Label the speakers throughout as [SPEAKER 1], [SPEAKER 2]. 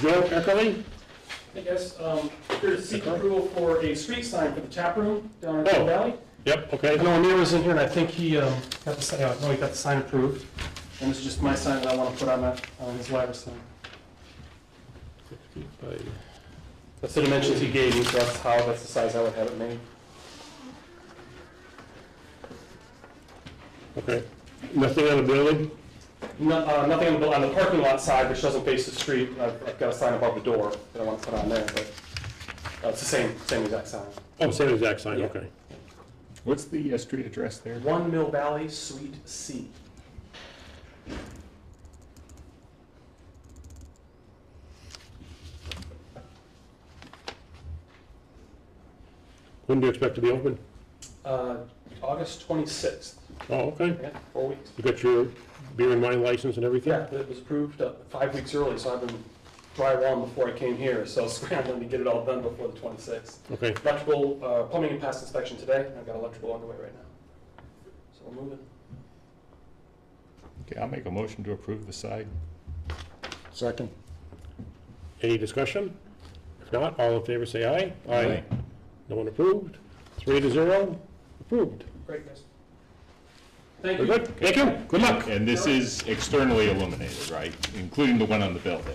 [SPEAKER 1] Joe Eckerly?
[SPEAKER 2] Hey guys, um, here to seek approval for a street sign for the tap room down in Mill
[SPEAKER 1] Oh.
[SPEAKER 2] Valley.
[SPEAKER 1] Yep,
[SPEAKER 2] I
[SPEAKER 1] okay.
[SPEAKER 2] know Amir was in here and I think he, um, got the sign, I know he got the sign approved. And it's just my sign that I wanna put on that, on his ladder sign. That's the dimensions he gave me, so that's how, that's the size I would have it made.
[SPEAKER 1] Okay. Nothing on the building?
[SPEAKER 2] No, uh, nothing on the, on the parking lot side, which doesn't face the street, I've, I've got a sign above the door that I wanna put on there, but, uh, it's the same, same exact sign.
[SPEAKER 1] Oh, same exact sign, okay.
[SPEAKER 3] What's the uh, street address there?
[SPEAKER 2] One Mill Valley, Suite C.
[SPEAKER 1] When do you expect to be open?
[SPEAKER 2] Uh, August 26th,
[SPEAKER 1] Oh, okay.
[SPEAKER 2] yeah, four weeks.
[SPEAKER 1] You got your beer and wine license and everything?
[SPEAKER 2] Yeah, it was approved uh, five weeks early, so I've been drywalling before I came here, so scrambling to get it all done before the 26th.
[SPEAKER 1] Okay,
[SPEAKER 2] Electrical, uh, plumbing and past inspection today, and I've got electrical underway right now. So we're moving.
[SPEAKER 3] Okay, I'll make a motion to approve the side.
[SPEAKER 4] Second.
[SPEAKER 1] any discussion? If not, all in favor say aye. No one approved? Three to zero, approved.
[SPEAKER 2] Great, guys. Thank
[SPEAKER 1] Very
[SPEAKER 2] you.
[SPEAKER 1] good, thank you, good luck.
[SPEAKER 3] And this is externally illuminated, right? Including the one on the building?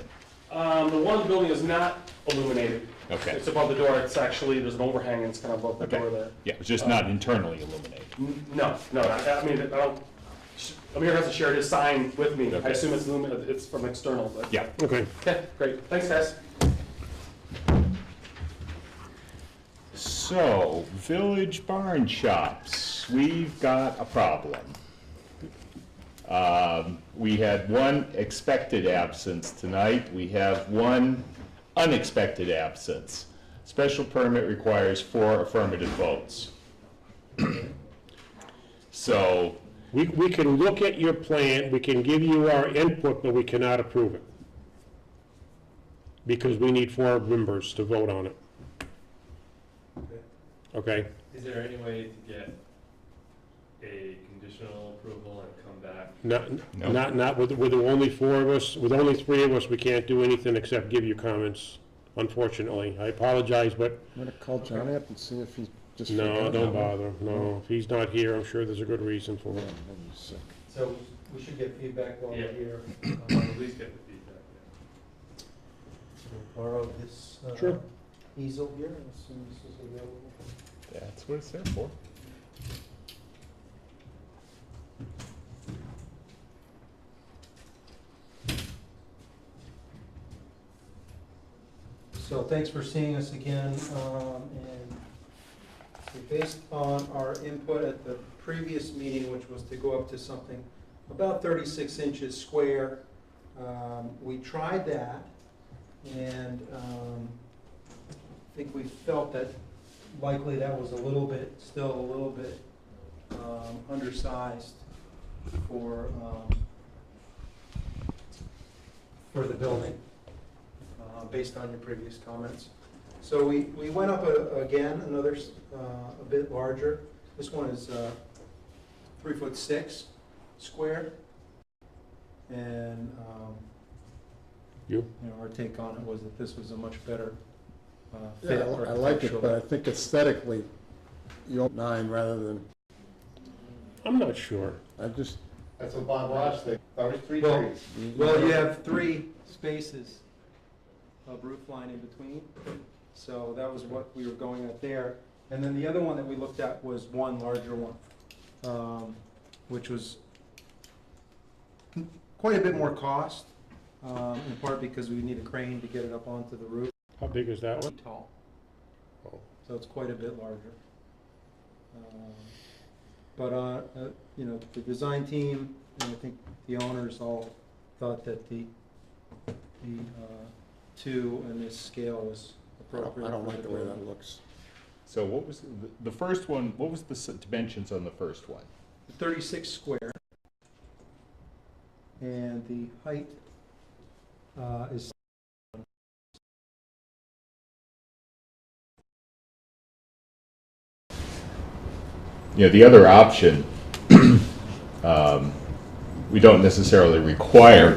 [SPEAKER 2] Um, The one building is not illuminated.
[SPEAKER 3] Okay.
[SPEAKER 2] It's above the door, it's actually, there's an overhang, it's kind of above the
[SPEAKER 3] Okay.
[SPEAKER 2] door there.
[SPEAKER 3] Yeah, it's just not internally illuminated.
[SPEAKER 2] N- No, no, I I mean, I don't, sh- Amir hasn't shared his sign with me. I
[SPEAKER 3] Okay.
[SPEAKER 2] assume it's illuminated, it's from external, but.
[SPEAKER 3] Yeah.
[SPEAKER 1] Okay,
[SPEAKER 2] Okay, great, thanks, guys.
[SPEAKER 3] So, Village Barn Shops, we've got a problem. Um, We had one expected absence tonight, we have one unexpected absence. Special permit requires four affirmative votes. So,
[SPEAKER 1] we, we can look at your plan, we can give you our input, but we cannot approve it. Because we need four members to vote on it. Okay?
[SPEAKER 5] Is there any way to get a conditional approval and come back?
[SPEAKER 1] Not,
[SPEAKER 3] No.
[SPEAKER 1] not, not with, with only four of us, with only three of us, we can't do anything except give you comments, unfortunately. I apologize, but
[SPEAKER 4] I'm gonna call John up and see if he just.
[SPEAKER 1] no,
[SPEAKER 4] forgot
[SPEAKER 1] don't
[SPEAKER 4] that one.
[SPEAKER 1] bother. No, if he's not here, I'm sure there's a good reason for
[SPEAKER 4] Yeah,
[SPEAKER 1] it.
[SPEAKER 4] hold on a sec.
[SPEAKER 6] So we should get feedback while
[SPEAKER 5] Yeah.
[SPEAKER 6] we're here.
[SPEAKER 5] I want to at least get the feedback.
[SPEAKER 6] We'll Borrow this uh,
[SPEAKER 1] Sure.
[SPEAKER 6] easel here and assume this is available.
[SPEAKER 3] that's what it's there for.
[SPEAKER 6] So thanks for seeing us again. um, And based on our input at the previous meeting, which was to go up to something about 36 inches square, um, we tried that and um, I think we felt that likely that was a little bit, still a little bit um, undersized for, um, for the building uh, based on your previous comments. So we, we went up a- again, another, s- uh, a bit larger. This one is uh, three foot six square. And, um,
[SPEAKER 1] You?
[SPEAKER 6] know, our take on it was that this was a much better uh, fit
[SPEAKER 4] Yeah, I I like it, but I
[SPEAKER 6] architecturally.
[SPEAKER 4] think aesthetically, you want nine rather than,
[SPEAKER 1] I'm not sure.
[SPEAKER 4] I just.
[SPEAKER 7] That's what Bob Ross thinks. That was three
[SPEAKER 6] Well-
[SPEAKER 7] trees.
[SPEAKER 6] Well, you have three spaces of roof line in between, so that was what we were going at there. And then the other one that we looked at was one larger one, um, which was quite a bit more cost, um, in part because we need a crane to get it up onto the roof.
[SPEAKER 1] How big is that one?
[SPEAKER 6] Feet Tall.
[SPEAKER 1] Oh.
[SPEAKER 6] So it's quite a bit larger. Um, But, uh, uh, you know, the design team, and I think the owners all thought that the, the uh, two and this scale was
[SPEAKER 4] I don't-
[SPEAKER 6] appropriate.
[SPEAKER 4] I don't
[SPEAKER 6] for
[SPEAKER 4] like the way that
[SPEAKER 6] building.
[SPEAKER 4] looks.
[SPEAKER 3] So what was, the- the first one, what was the s- dimensions on the first one?
[SPEAKER 6] Thirty-six square. And the height uh, is
[SPEAKER 3] you know, the other option, um, we don't necessarily require